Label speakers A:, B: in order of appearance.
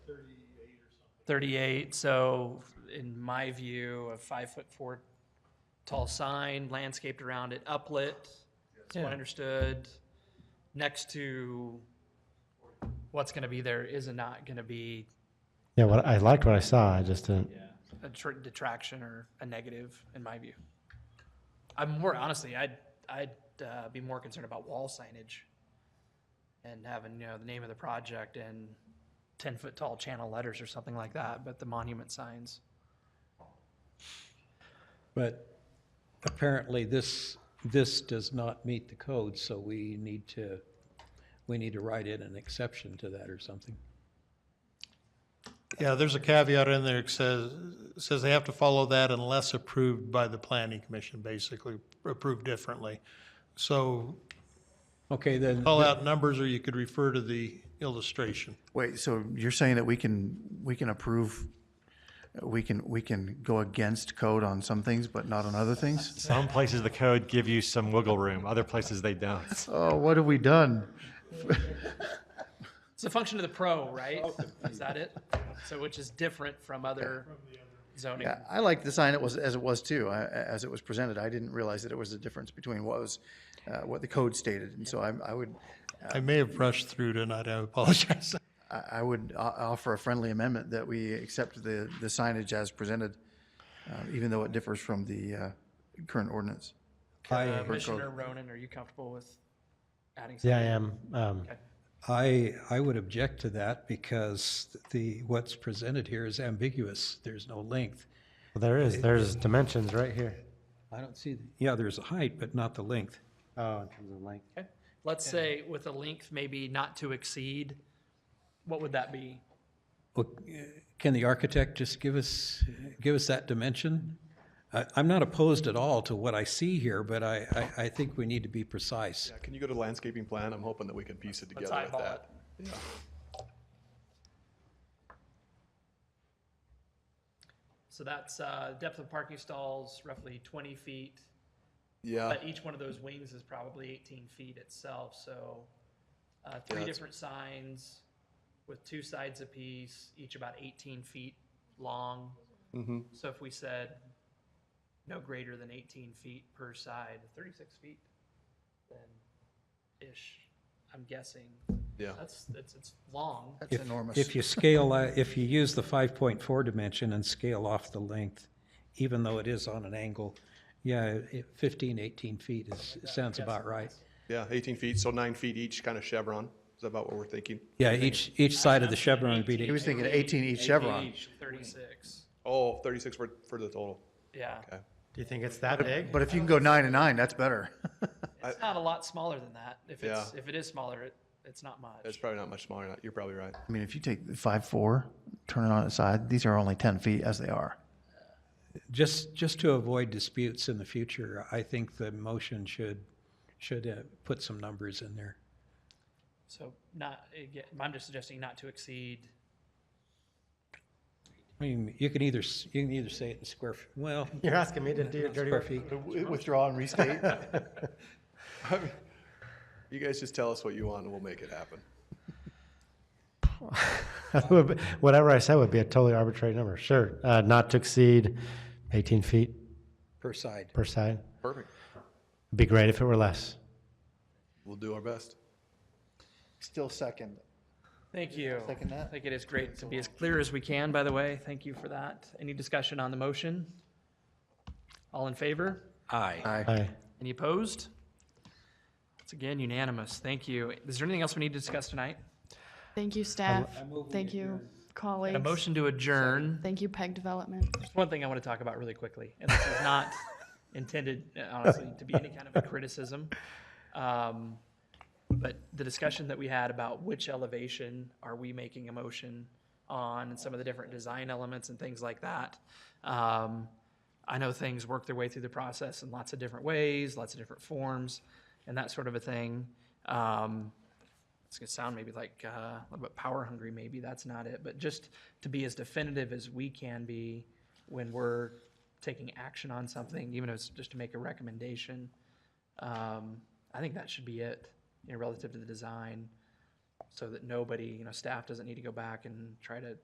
A: 38, so in my view, a five-foot-four tall sign landscaped around it, uplit, that's what I
B: Yeah.
A: understood, next to what's going to be there is not going to be
B: Yeah, what I liked what I saw. I just didn't.
A: a tr- detraction or a negative, in my view. I'm more, honestly, I'd, I'd uh, be more concerned about wall signage and having, you know, the name of the project and 10-foot-tall channel letters or something like that, but the monument signs.
C: But apparently this, this does not meet the code, so we need to, we need to write in an exception to that or something.
D: Yeah, there's a caveat in there that says, says they have to follow that unless approved by the planning commission, basically, approved differently. So
C: Okay, then,
D: call out numbers or you could refer to the illustration.
E: Wait, so you're saying that we can, we can approve, we can, we can go against code on some things, but not on other things?
F: Some places the code give you some wiggle room, other places they don't.
E: Oh, what have we done?
A: It's a function of the pro, right? Is that it? So which is different from other zoning.
E: Yeah, I like the sign it was, as it was too, I- as it was presented. I didn't realize that it was a difference between what was, uh, what the code stated. And so I, I would,
D: I may have rushed through tonight, I apologize.
E: I, I would o- offer a friendly amendment that we accept the, the signage as presented, uh, even though it differs from the, uh, current ordinance.
C: I,
A: Uh, Commissioner Ronan, are you comfortable with adding something?
B: Yeah, I am. Um,
C: I, I would object to that because the, what's presented here is ambiguous. There's no length.
B: well, there is. There's dimensions right here.
C: I don't see, the- yeah, there's a height, but not the length.
B: Oh, in terms of length.
A: Okay. Let's say with a length maybe not to exceed, what would that be?
C: Well, Can the architect just give us, give us that dimension? I, I'm not opposed at all to what I see here, but I, I, I think we need to be precise.
G: Yeah, can you go to landscaping plan? I'm hoping that we can piece it
A: Let's
G: together with
A: eyeball
G: that.
A: So that's uh, depth of parking stalls roughly 20 feet,
G: Yeah,
A: but each one of those wings is probably 18 feet itself, so uh, three
G: that's-
A: different signs with two sides apiece, each about 18 feet long.
G: Mm-hmm.
A: So if we said no greater than 18 feet per side, 36 feet, then ish, I'm guessing.
G: yeah.
A: That's, it's, it's long.
E: That's enormous.
C: If you scale, uh, if you use the 5.4 dimension and scale off the length, even though it is on an angle, yeah, it- 15, 18 feet is, sounds about right.
G: Yeah, 18 feet, so nine feet each, kind of chevron. Is that about what we're thinking?
C: Yeah, each, each side of the chevron would
E: He
C: be,
E: was thinking 18 each Chevron,
A: Thirty-six,
G: Oh, 36 for, for the total.
A: yeah.
G: Okay.
B: Do you think it's that big?
E: but if you can go nine and nine, that's better.
A: It's not a lot smaller than that. If it's,
G: Yeah.
A: if it is smaller, it, it's not
G: It's
A: much.
G: probably not much smaller. than that. You're probably right.
E: I mean, if you take the five, four, turn it on its side, these are only ten feet as they are.
C: just, just to avoid disputes in the future, I think the motion should, should uh, put some numbers in there.
A: So not, again, I'm just suggesting not to exceed,
C: I mean, you can either, s- you can either say it in square, f- well,
B: You're asking me to do your dirty
C: square
B: work.
C: feet.
E: Withdraw and restate.
G: You guys just tell us what you want and we'll make it happen.
B: Whatever I said would be a totally arbitrary number. Sure, uh, not to exceed 18 feet
C: per side.
B: per side.
G: Perfect.
B: It'd be great if it were less.
G: We'll do our best.
E: Still second.
A: thank you.
E: Second that?
A: I think it is great to be as clear as we can, by the way. Thank you for that. Any discussion on the motion? All in favor?
C: Aye.
B: Aye.
A: Any opposed? It's again unanimous. Thank you. Is there anything else we need to discuss tonight?
H: Thank you, staff. Thank you, colleagues.
A: A motion to adjourn.
H: Thank you, PEG Development.
A: There's one thing I want to talk about really quickly, and this is not intended, uh, honestly, to be any kind of a criticism. Um, But the discussion that we had about which elevation are we making a motion on and some of the different design elements and things like that. um, I know things work their way through the process in lots of different ways, lots of different forms, and that sort of a thing. Um, it's gonna sound maybe like uh, a little bit power hungry, maybe that's not it, but just to be as definitive as we can be when we're taking action on something, even if it's just to make a recommendation. Um, I think that should be it, you know, relative to the design, so that nobody, you know, staff doesn't need to go back and try to